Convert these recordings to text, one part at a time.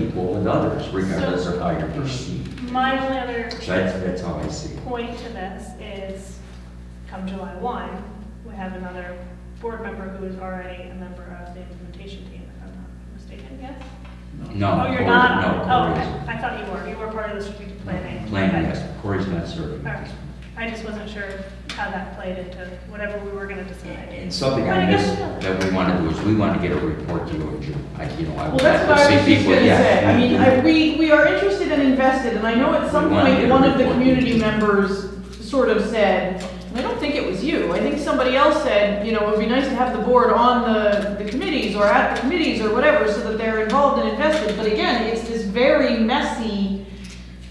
with others, regardless of how you're perceived. My only other So that's, that's how I see it. point to this is, come July 1, we have another board member who is already a member of the implementation team, if I'm not mistaken, yes? No. Oh, you're Cory- not on it? No, Oh, Cory okay. I thought you were, you were part of the strategic planning. isn't. Planning, Okay. yes, Cory's not serving. All right. I just wasn't sure how that played into whatever we were gonna decide. And something But I I guess- missed that we want to do is, we want to get a report to you in June. I, you know, I Well, would that's like what I to was see just people, gonna say. yeah. I mean, I, we, we are interested and invested, and I know at some We wanna get point, a one of the report. community members sort of said, "And I don't think it was you, I think somebody else said, you know, it would be nice to have the board on the, the committees or at the committees or whatever, so that they're involved and invested, but again, it's this very messy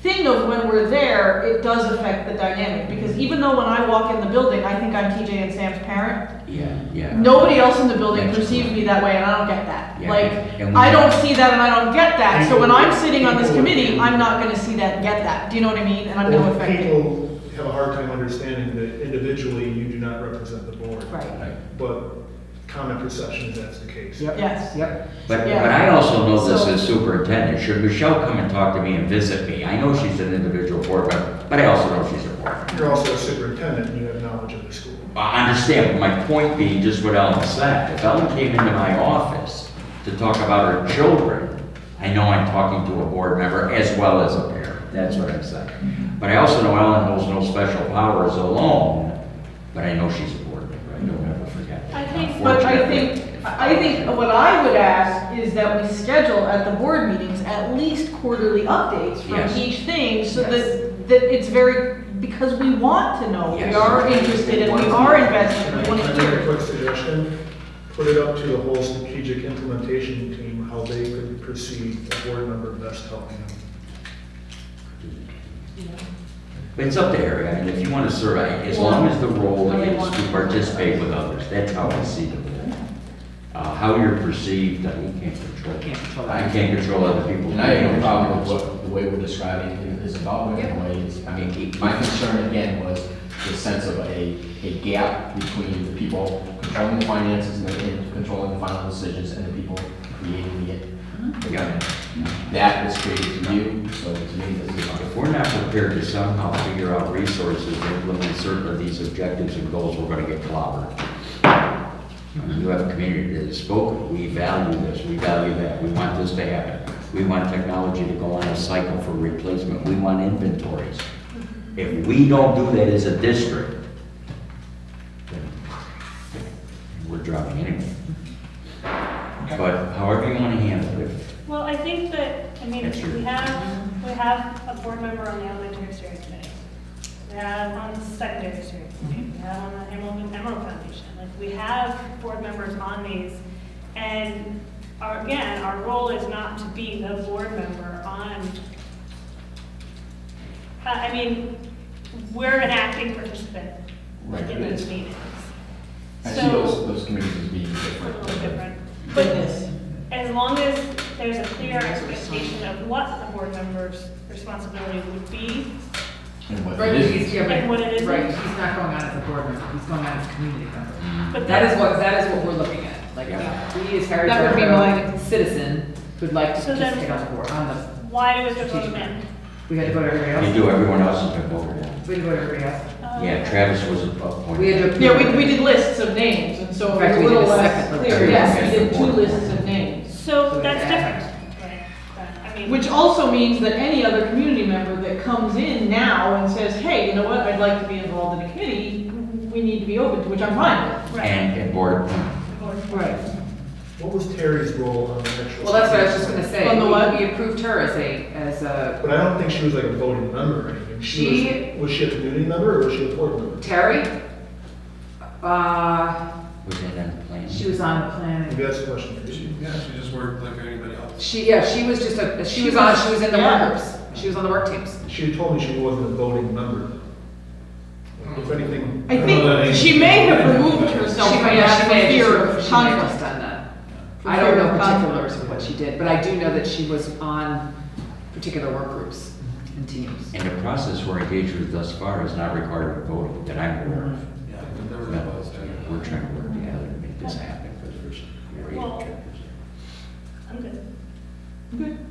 thing of when we're there, it does affect the dynamic, because even though when I walk in the building, I think I'm TJ and Sam's parent, Yeah, yeah. Nobody else in the building That's perceives true. me that way, and I don't get that. Yeah, Like, and we- I don't see that, and I don't get that. So when I'm sitting on this People- committee, I'm not gonna see that and get that. Do you know what I mean? And I'm gonna Well, affect it. People have a hard time understanding that individually you do not represent the board. Right. Right. But common perception is that's the case. Yep. Yes. Yep. But, Yeah. but I also know this So- as superintendent, should Michelle come and talk to me and visit me? I know she's an individual board member, but I also know she's a board member. You're also a superintendent, and you have knowledge of the school. I understand, but my point being just what Ellen said. If Ellen came into my office to talk about her children, I know I'm talking to a board member as well as a parent. That's what I'm saying. But I also know Ellen holds no special powers alone, but I know she's a board member. I don't ever forget that. I think- But I Unfortunately. think, I think what I would ask is that we schedule at the board meetings at least quarterly updates Yes. from each thing, so Yes. that, that it's very, because we want to know. We Yes. are interested and we are invested, Can we I- wanna can I hear. make a quick suggestion? Put it up to the whole strategic implementation team, how they could perceive a board member best helping them. But It's up to area. I mean, if you want to serve, I- as long as the role How they is want. to participate with others, that's how I see the role. Uh, how you're perceived, I mean, you can't control. Can't control I that. can't control other people. And I have no problem with what, the way we're describing it is about in a way, it's, I mean, my concern again was the sense of a, a gap between the people controlling the finances and the- and controlling the final decisions and the people creating it. Yeah. That was created to you, so to me, this is If not. we're not prepared to somehow figure out resources to implement certain of these objectives and goals, we're gonna get clobbered. I mean, You have a community that has spoken, we value this, we value that, we want this to happen. We want technology to go on a cycle for replacement, we want inventories. If we don't do that as a district, then we're dropping anyway. But however you wanna handle it, Well, I think that, I mean, That's true. we have, we have a board member on the elementary steering committee. We have on the secondary steering committee, we have on the Emerald, Emerald Foundation. Like, we have board members on these. And our, again, our role is not to be the board member on uh, I mean, we're an acting participant Right, in but those it's- meetings. I see those, So, those communities as being a different. little different. But But this. as long as there's a clear expectation of what the board member's responsibility would be, And what Right, it is. he's, yeah, And what it right, is. right, he's not going on as a board member, he's going on as a community member. but That that, is what, that is what we're looking at, like, Yeah. we as Harrisburg. That would be are a Citizen who'd like to So then- participate on the board, on the, why do we have to vote then? we had to go to everybody you else, do, everyone else has been over that. we had to go to everybody else. Uh, Yeah, Travis was appointed. We had to. Yeah, we, we did lists of names, and so In it was fact, a we did little a less second clear. list. Yes, we did two Yes. lists of names. So So that's that- different. Right, but, I mean. Which also means that any other community member that comes in now and says, hey, you know what, I'd like to be involved in a committee, we need to be open to, which I'm fine Right. And, and board appointment. with. Right. What was Terry's role on the actual? Well, that's what I was just gonna say, On the what? we we approved her as a, as a, But I don't think she was like a voting member or anything. She- was, was she a community member or was she a board member? Terry? Uh, Was that on the plan? she was on the planet. Maybe that's a question for you. Yeah, she just worked like anybody else. She, yeah, she was just a, she She was on, was- she was in the yeah. work groups. She was on the work teams. She told me she wasn't a voting member. though. If anything. I don't know that think she may have removed She herself from might, yeah, that she for may have fear just, of she might have just conflict. done that. For I don't fear know of particulars conflict. of what she did, but I do know that she was on particular work groups and teams. And the process we're engaged with thus far has not required a vote that I'm aware of. Yeah, but there was a No, buzz there. We're trying to work together to make this happen because there's great Well- objectives. I'm good.